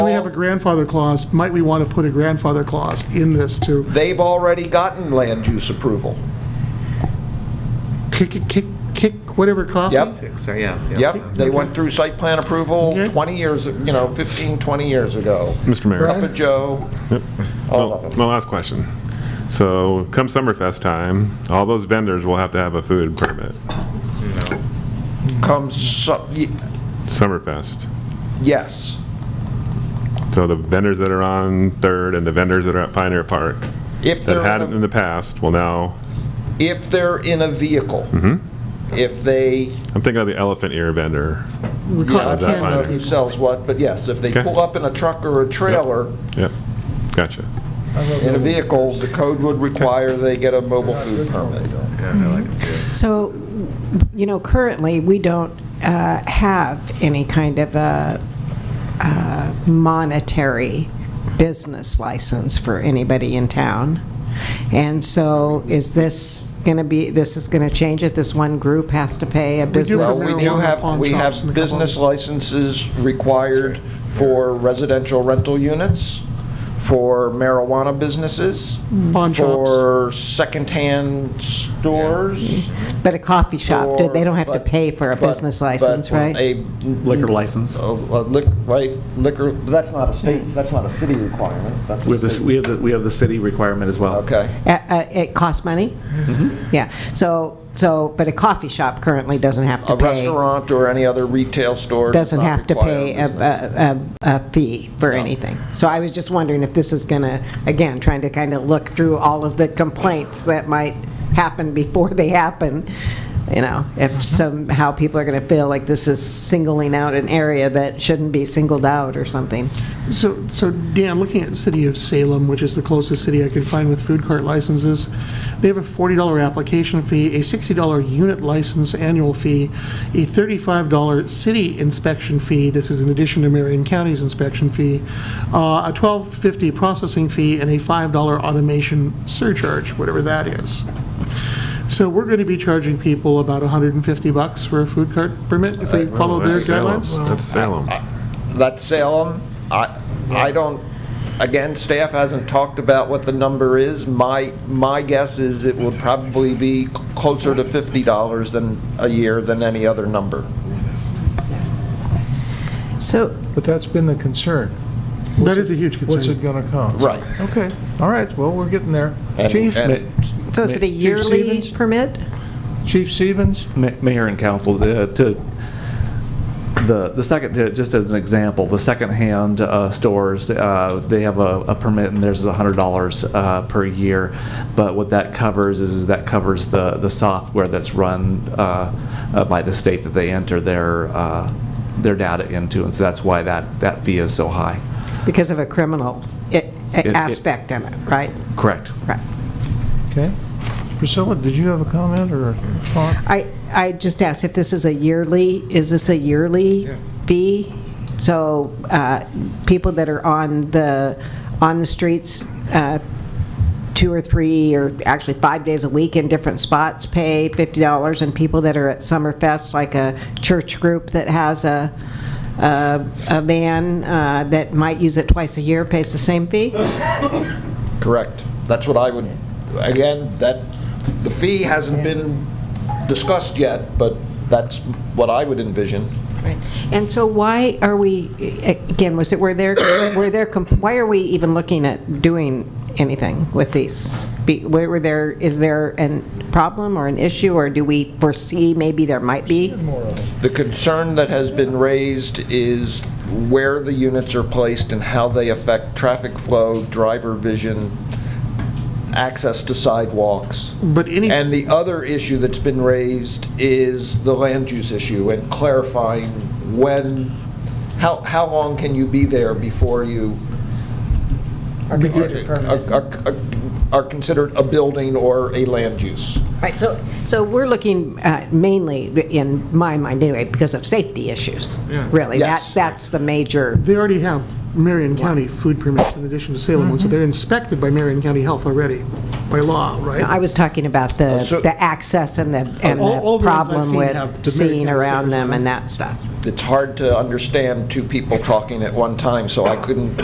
We have a grandfather clause, might we want to put a grandfather clause in this to They've already gotten land use approval. kick, kick- kick, kick whatever coffee? Yep, So, yeah. yep. They went through site plan approval Okay. 20 years, you know, 15, 20 years ago. Mr. Mayor. Up at Joe, all of them. My last question. So come Summerfest time, all those vendors will have to have a food permit. Comes, su- y- Summerfest. yes, So the vendors that are on Third and the vendors that are at Pioneer Park If that they're had on it a- in the past will now, if they're in a vehicle. If they, I'm thinking of the elephant ear vendor. We yeah, I call it Is that can't know who fine? candy. sells what, but yes, if they Okay. pull up in a truck or a trailer Yep, gotcha. in a vehicle, the code would require they get a mobile food permit. So, you know, currently, we don't uh, have any kind of a uh, monetary business license for anybody in town. And so is this going to be, this is going to change it? This one group has to pay a do business? have Well, we do marijuana have, pawn we shops and a have couple business others. licenses required for residential rental units, for marijuana businesses. Mm. Pawn shops. For secondhand stores. But a coffee Mm-hmm. shop, do- they don't have to for- pay for a but- business but license, right? A Liquor license. a- a lic- Right, liquor, that's not a state, Mm. that's not a city requirement. That's We have this, state- we have, the we have the city requirement as well. Okay. Uh, uh, It costs money? Mm-hmm. Yeah, so, so, but a coffee shop currently doesn't have to A pay. restaurant or any other retail store. does doesn't not have to require pay a- business. a, a, a fee for anything. So I was just wondering if this is going to, again, trying to kind of look through all of the complaints that might happen before they happen, you know, if somehow people are going to feel like this is singling out an area that shouldn't be singled out or something. So, so Dan, looking at the city of Salem, which is the closest city I could find with food cart licenses, they have a $40 application fee, a $60 unit license annual fee, a $35 city inspection fee, this is in addition to Marion County's inspection fee, uh, a $12.50 processing fee, and a $5 automation surcharge, whatever that is. So we're going to be charging people about 150 bucks for a food cart permit if they follow their That's Salem. guidelines? That's Salem. That's Salem. I, I don't, again, staff hasn't talked about what the number is. My, my guess is it will probably be closer to $50 than, a year than any other number. So, But that's been the concern. That is a huge concern. What's it going to cost? Right. Okay, all right, well, we're getting there. And- Chief? Ma- and- so is it a Chief yearly Stevens? permit? Chief Stevens? Ma- Mayor and council, uh, to, the, the second, uh, just as an example, the secondhand uh, stores, uh, they have a a permit and theirs is $100 uh, per year. But what that covers is, is that covers the, the software that's run uh, uh, by the state that they enter their, uh, their data into. And so that's why that, that fee is so high. Because of a criminal i- it- aspect in it, right? Correct. Right. Okay. Priscilla, did you have a comment or a thought? I, I just asked if this is a yearly, is this a yearly fee? So uh, people that are on the, on the streets, uh, two or three, or actually five days a week in different spots pay $50, and people that are at Summerfest, like a church group that has a, a a van uh, that might use it twice a year pays the same fee? Correct. That's what I would, again, that, the fee hasn't been discussed yet, but that's what I would envision. Right. And so why are we, again, was it, were there, were there, com- why are we even looking at doing anything with these? Be- Were there, is there a problem or an issue, or do we foresee maybe there might be? The concern that has been raised is where the units are placed and how they affect traffic flow, driver vision, access to sidewalks. But any- And the other issue that's been raised is the land use issue and clarifying when, how, how long can you be there before you Or considered permanent? are- are are considered a building or a land use? Right, so, so we're looking uh, mainly, in my mind anyway, because of safety issues, really. Yes. That's, that's the major. They already have Marion County food permits in addition to Salem ones, so they're inspected by Marion County Health already, by law, I right? was talking about the, so- the access and the, and All- all the ones I've the problem seen have the with Mary seeing Kay around stickers on them them. and that stuff. it's hard to understand two people talking at one time, so I couldn't